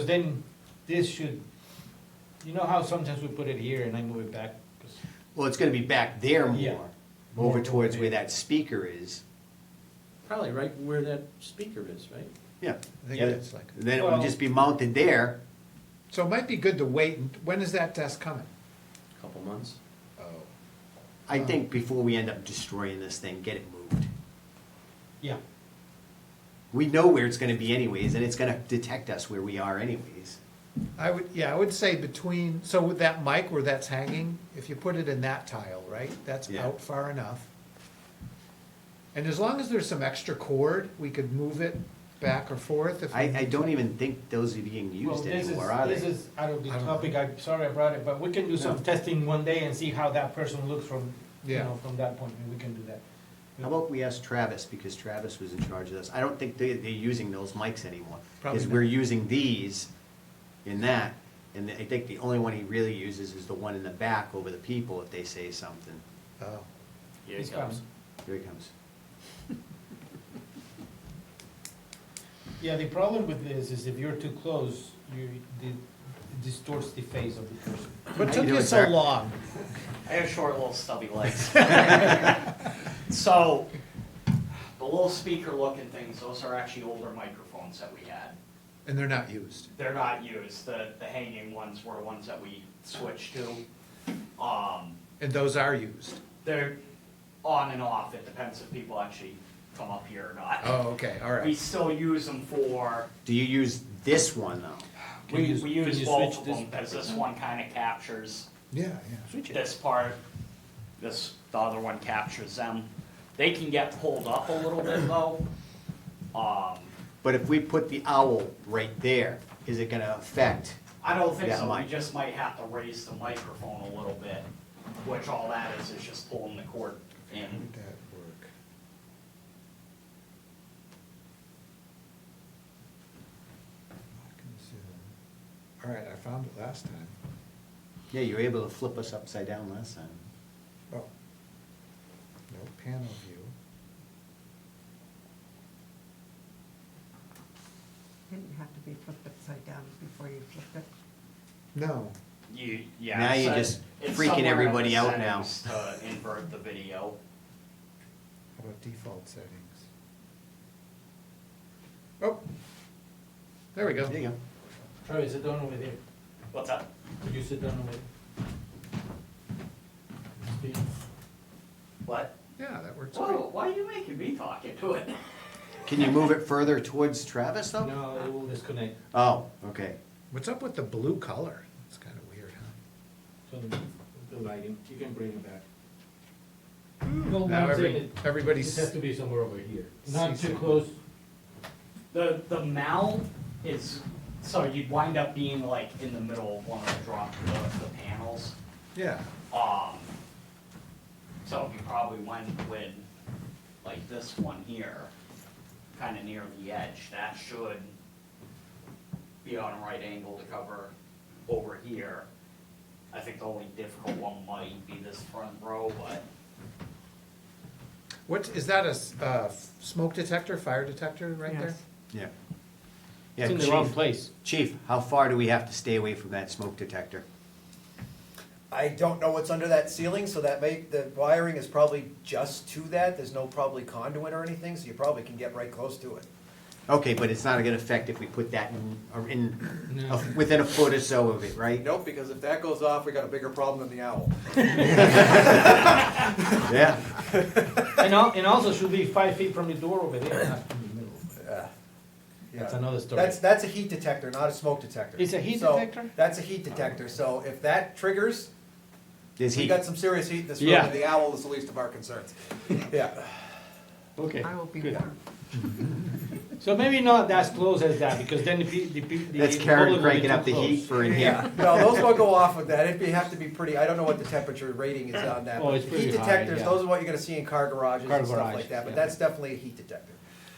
then this should, you know how sometimes we put it here and I move it back? 'Cause- Well, it's gonna be back there Yeah. more, over More towards where elevated. that speaker is, Probably right where that speaker is, right? yeah. I think Yeah. it's like, Then it would Well- just be mounted there, so it might be good to wait, and when is that desk coming? Couple months. I uh-huh. think, before we end up destroying this thing, get it moved. Yeah, We know where it's gonna be anyways, and it's gonna detect us where we are anyways. I would, yeah, I would say between, so with that mic where that's hanging, if you put it in that tile, right, that's Yeah. out far enough. And as long as there's some extra cord, we could move it back or forth if. I, we- I don't even think those are being well, used this is, anymore, are this they? is out of the I don't know. topic, I'm sorry I brought it, but we can do some No. testing one day and see how that person looks from, you Yeah. know, from that point, and we can do that. How about we ask Travis, because Travis was in charge of this, I don't think they, they're using those mics anymore. Probably Because not. we're using these in that, and I think the only one he really uses is the one in the back over the people if they say something. Oh. Yeah, He's coming. Here he comes. Yeah, the problem with this is if you're too close, you, it distorts the face of the person. What How took you you doing, so sir? long? I have short little stubby legs. so the little speaker looking things, those are actually older microphones that we had. And they're not used. They're not used. The the hanging ones were ones that we switched to. Um, And those are used. they're on and off. It depends if people actually come up here or not. Oh, okay, all We right. still use them for Do you use this one though? Can we, you- we can use you both switch of this them because back? this one kind of captures Yeah, yeah. this part, this, the other one captures them. They can get pulled up a little bit though. Um, But if we put the owl right there, is it gonna affect? I don't think Yeah, so, we Mike. just might have to raise the microphone a little bit, which all that is, is just pulling the cord in. Would that work? I can see that. All right, I found it last time. Yeah, you were able to flip us upside down last time. Oh. No panel view. Didn't have to be flipped upside down before you flipped it. No, You, yeah. Now you're so just it's freaking somewhere in the everybody out now. settings To invert the video. how about default settings? Oh. There we go. There you go. Troy, sit down over there. What's up? Could you sit down over there? What? Yeah, that works great. Whoa, why are you making me talk into it? Can you move it further towards Travis though? No, it will disconnect. Oh, okay. What's up with the blue color? It's kind of weird, huh? So the the lighting, you can bring it back. Now every- everybody's. be somewhere over here. Not Not See too too some- close. The, the mount is, so you'd wind up being like in the middle of one of the drop, the, the panels. Yeah. Um, so we probably went with, like this one here, kinda near the edge, that should be on a right angle to cover over here. I think the only difficult one might be this front row, but What, is that a, s- uh, f- smoke detector, fire detector right there? Yes. Yeah. Yeah, It's in the wrong Chief, place. Chief, how far do we have to stay away from that smoke detector? I don't know what's under that ceiling, so that may, the wiring is probably just to that, there's no probably conduit or anything, so you probably can get right close to it. Okay, but it's not gonna affect if we put that in, or in, No. a- within a foot or so of it, right? Nope, because if that goes off, we got a bigger problem than the owl. Yeah. And al- and also should be five feet from the door over there, not in the middle. That's Yeah. another story. That's, that's a heat detector, not a smoke detector. It's a heat So, detector? That's a heat detector, so if that triggers, Is we he, got some serious heat in this room, Yeah. and the owl is the least of our concerns. Yeah. Okay. I will be good. warm. So maybe not as close as that, because then the pe- the pe- the. that's public will Karen be cranking too up the close. heat for in here. Yeah, no, those don't go off with that, it'd be, have to be pretty, I don't know what the temperature rating is on that. Oh, but it's pretty Heat high, detectors, yeah. those are what you're gonna see in car garages Car and stuff garage, like that, yeah. but that's definitely a heat detector.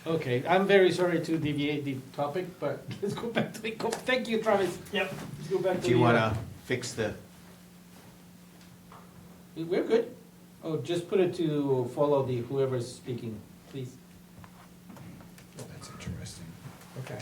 Okay, I'm very sorry to deviate the topic, but let's go back to the, co- thank you, Travis. Yep. Let's go back to the. Do you uh, wanna fix the, uh, We're good. Oh, just put it to follow the whoever's speaking, please. Well, that's interesting. Okay.